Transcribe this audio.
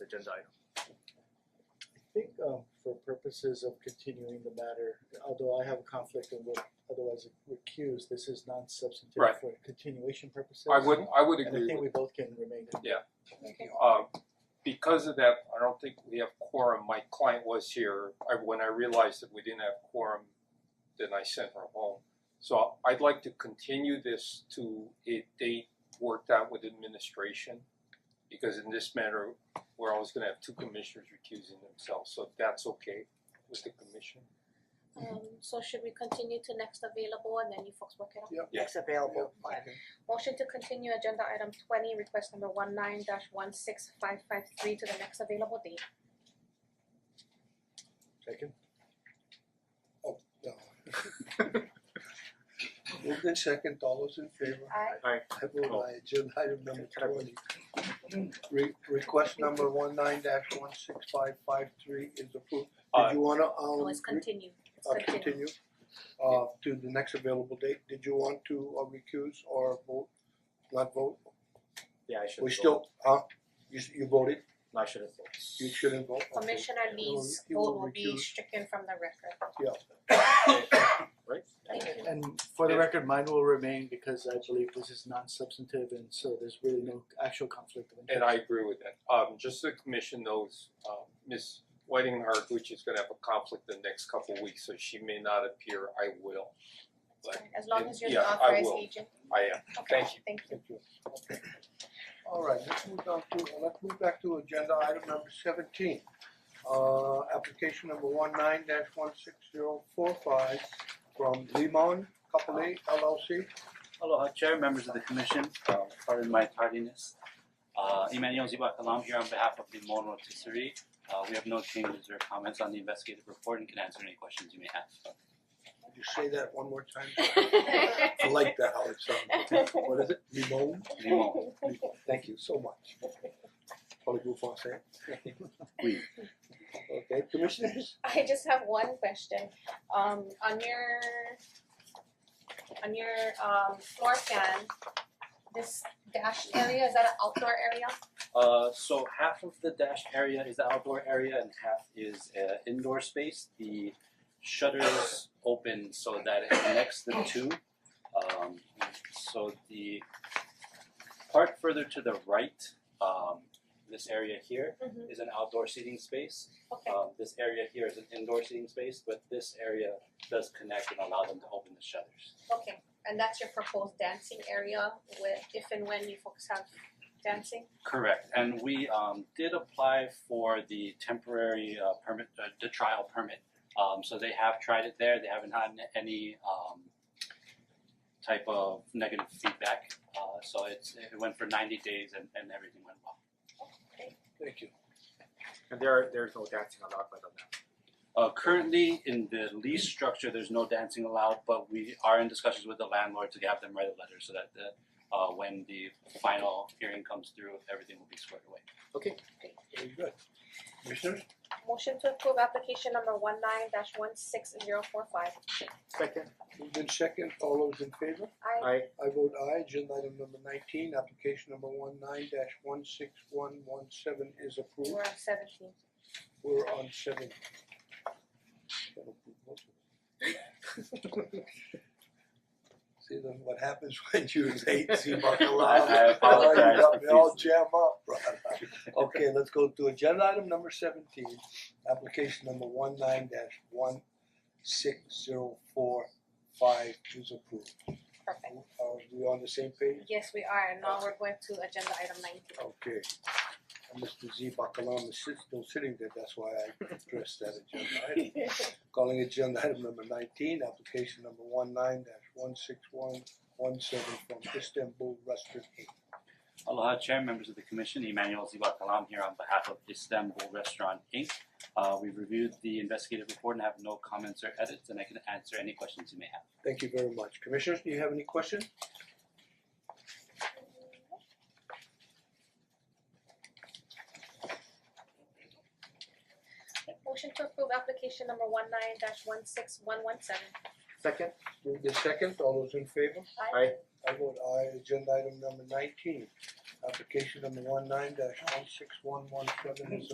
agenda item. I think um for purposes of continuing the matter, although I have a conflict and would otherwise recuse, this is non-substantive Right. for continuation purposes. I would, I would And I agree think with, we both can remain. you. um, because of that, I don't think we have quorum, my client was here, I, when I realized that we didn't have quorum, then I sent her home. So I'd like to continue this to a date worked out with administration, because in this matter, we're always gonna have two commissioners recusing themselves, so if that's okay with the commission. Um so should we continue to next available and then you folks work it out? Yeah. Next available, fine. Motion to continue agenda item twenty, request number one nine dash one six five five three to the next available date. Second, Oh, No. Moved in second, all those in favor? Aye. I vote aye, agenda item number twenty. Re- request number one nine dash one six five five three is approved. Aye. Did you wanna No, um it's re- continue, it's uh, continue. continue uh to the next available date? Did you want to uh recuse or vote, not vote? Yeah, I should We still, huh? You s- you voted, I should have you shouldn't vote, okay. Commissioner He will- Lee's he vote will will be recuse. stricken from the record. Right? Thank you. and for the Yeah. record, mine will remain because I believe this is non-substantive and so there's really no actual conflict of interest. And I agree with that. Um just so the commission knows, um Ms. Whiting Hardwich is gonna have a conflict the next couple of weeks, so she may not appear, I will. But As long it- as you're yeah, the I authorized will. agent, I am, okay, thank you. thank you. Thank you. Okay. Alright, let's move on to, uh, let's move back to agenda item number seventeen. Uh, application number one nine dash one six zero four five from Limon Capole LLC. Aloha Chair, members of the commission, uh, pardon my tardiness. Uh, Emmanuel Ziba Kalam here on behalf of the Mon Rotisserie. Uh, we have no changes or comments on the investigative report and can answer any questions you may have. Could you say that one more time? I like that how it sounds. What is it? Limon? Limon, Limon. Thank you so much. Probably go for it. Oui. Okay, commissioners? I just have one question. Um on your on your um floor plan, this dashed area, is that an outdoor area? Uh, so half of the dash area is the outdoor area and half is uh, indoor space. The shutters open so that it connects the two. Um, so the part further to the right, um, this area here Mhm. is an outdoor seating space. Okay, Um, this area here is an indoor seating space, but this area does connect and allow them to open the shutters. okay. And that's your proposed dancing area with if and when you folks have dancing? Correct, and we um did apply for the temporary uh permit, uh, the trial permit. Um so they have tried it there, they haven't had any um type of negative feedback. Uh so it's it went for ninety days and and everything went well. Thank you. And there there's no dancing allowed by the map. Uh currently in the lease structure, there's no dancing allowed, but we are in discussions with the landlord to have them write a letter so that the uh when the final hearing comes through, everything will be squared away. Very good. Commissioners? Motion to approve application number one nine dash one six zero four five. Second, Moved in second, all those in favor? Aye. Aye. I vote aye, agenda item number nineteen, application number one nine dash one six one one seven is We're approved, on seventeen. we're on seven. See, that's what happens when you late, see Bacalao. I- I apologize They all profusely. jam up, brother. Okay, let's go to agenda item number seventeen, application number one nine dash one six zero four five is approved. Perfect. Are we on the same page? Yes, we are. And now we're going to agenda item nineteen. Okay. And Mr. Z Bakalam is sit- still sitting there, that's why I addressed that agenda item. Calling agenda item number nineteen, application number one nine dash one six one one seven from Istanbul Restaurant Inc. Aloha Chair, members of the Commission, Emmanuel Ziba Kalam here on behalf of Istanbul Restaurant Inc. Uh, we've reviewed the investigative report and have no comments or edits, and I can answer any questions you may have. Thank you very much. Commissioners, do you have any questions? Motion to approve application number one nine dash one six one one seven. second, Move the second, all those in favor? Aye. I vote aye, agenda item number nineteen. Application number one nine dash one six one one seven is